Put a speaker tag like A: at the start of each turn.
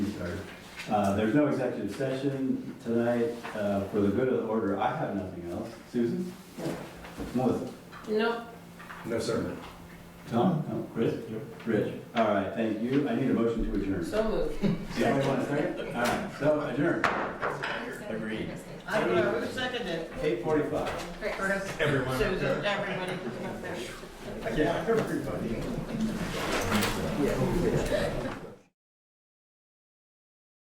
A: start. Uh, There's no executive session tonight. Uh, For the good of the order, I have nothing else. Susan? Melissa?
B: Nope.
C: No sermon.
A: Tom? No. Chris? Rich? All right, thank you. I need a motion to adjourn.
B: So moved.
A: Somebody want a second? All right, so adjourn. Agreed.
B: I don't know who seconded it.
A: 8:45.
B: Chris,
C: Everyone.
B: Susan, everybody.
A: Yeah, everybody.